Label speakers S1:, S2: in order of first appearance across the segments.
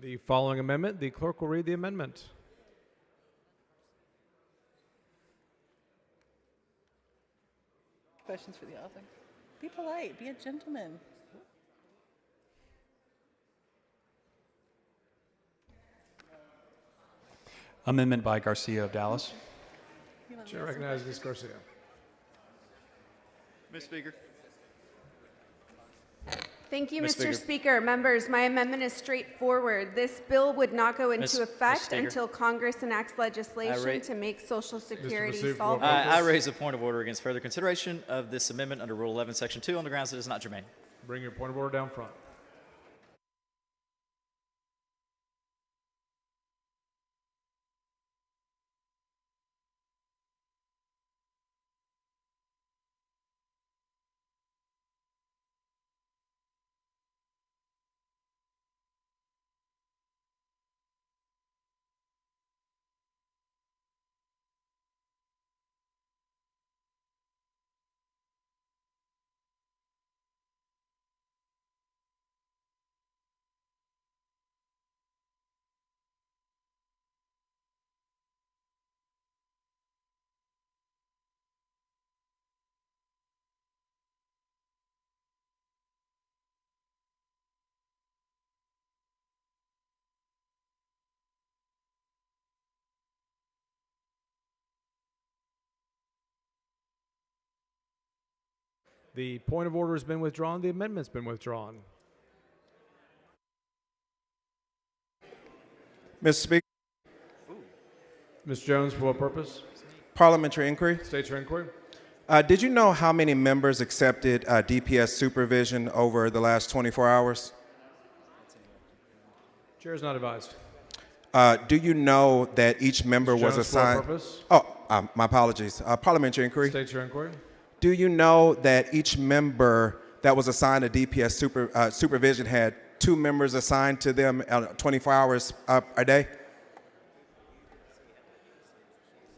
S1: the following amendment. The clerk will read the amendment.
S2: Questions for the author? Be polite, be a gentleman.
S3: Amendment by Garcia of Dallas.
S2: You wanna
S1: Chair
S2: raise
S1: recognizes Ms. Garcia.
S4: Mr. Speaker.
S5: Thank you,
S4: Ms.
S5: Mr.
S4: Speaker.
S5: Speaker. Members, my amendment is straightforward. This bill would not go
S4: Ms.
S5: into effect
S4: Speaker.
S5: until Congress enacts legislation
S4: rate-
S5: to make Social Security
S1: Massoud, roll
S5: solvent.
S1: call.
S4: uh, I, I
S1: Focus.
S4: raise a point of order against further consideration of this amendment under Rule 11, Section 2, on the grounds that it is not germane.
S1: Bring your point of order down front. The point of order has been withdrawn. The amendment's been withdrawn.
S6: Mr. Speaker,
S1: Ms. Jones, for what purpose?
S6: parliamentary inquiry.
S1: State your inquiry.
S6: Uh, did you know how many members accepted uh, DPS supervision over the last 24 hours?
S1: Chair is not advised.
S6: Uh, do you know that each member
S1: Mr.
S6: was
S1: Jones, for what
S6: assigned?
S1: purpose?
S6: Oh, um, my apologies. Uh, parliamentary inquiry.
S1: State your inquiry.
S6: Do you know that each member that was assigned to DPS super, uh, supervision had two members assigned to them uh, 24 hours uh, a day?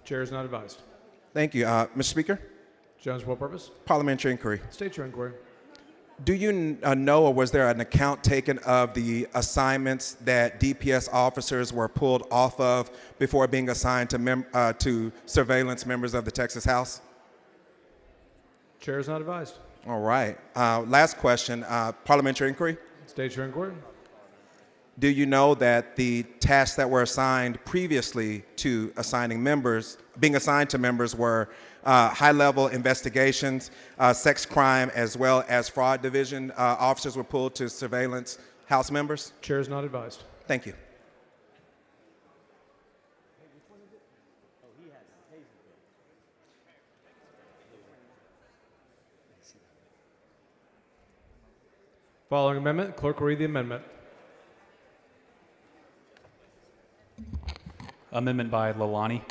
S1: Chair is not advised.
S6: Thank you, uh, Mr. Speaker.
S1: Jones, for what purpose?
S6: Parliamentary inquiry.
S1: State your inquiry.
S6: Do you uh, know, or was there an account taken of the assignments that DPS officers were pulled off of before being assigned to, mem- uh, to surveillance members of the Texas House?
S1: Chair is not advised.
S6: All right. Uh, last question, uh, parliamentary inquiry.
S1: State your inquiry.
S6: Do you know that the tasks that were assigned previously to assigning members, being assigned to members, were uh, high level investigations, uh, sex crime, as well as fraud division uh, officers were pulled to surveillance House members?
S1: Chair is not advised.
S6: Thank you.
S1: Following amendment, clerk will read the amendment.
S3: Amendment by Lalani.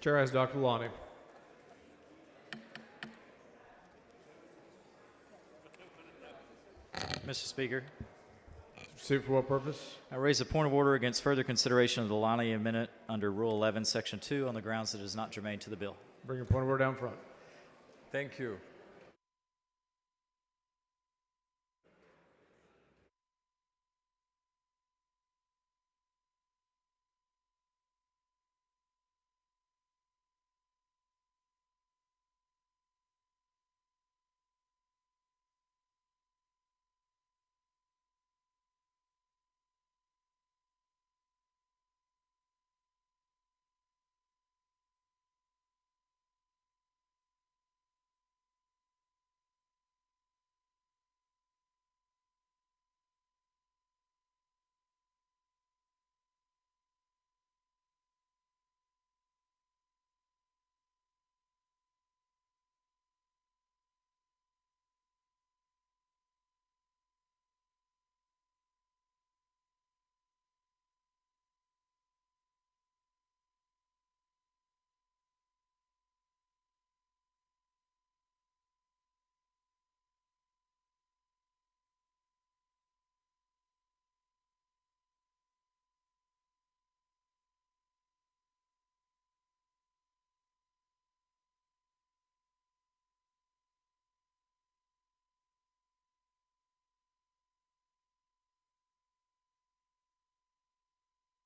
S1: Chair has Dr. Lonnie.
S4: Mr. Speaker.
S1: Suit for what purpose?
S4: I raise a point of order against further consideration of the Lonnie Amendment under Rule 11, Section 2, on the grounds that it is not germane to the bill.
S1: Bring your point of order down front.
S7: Thank you.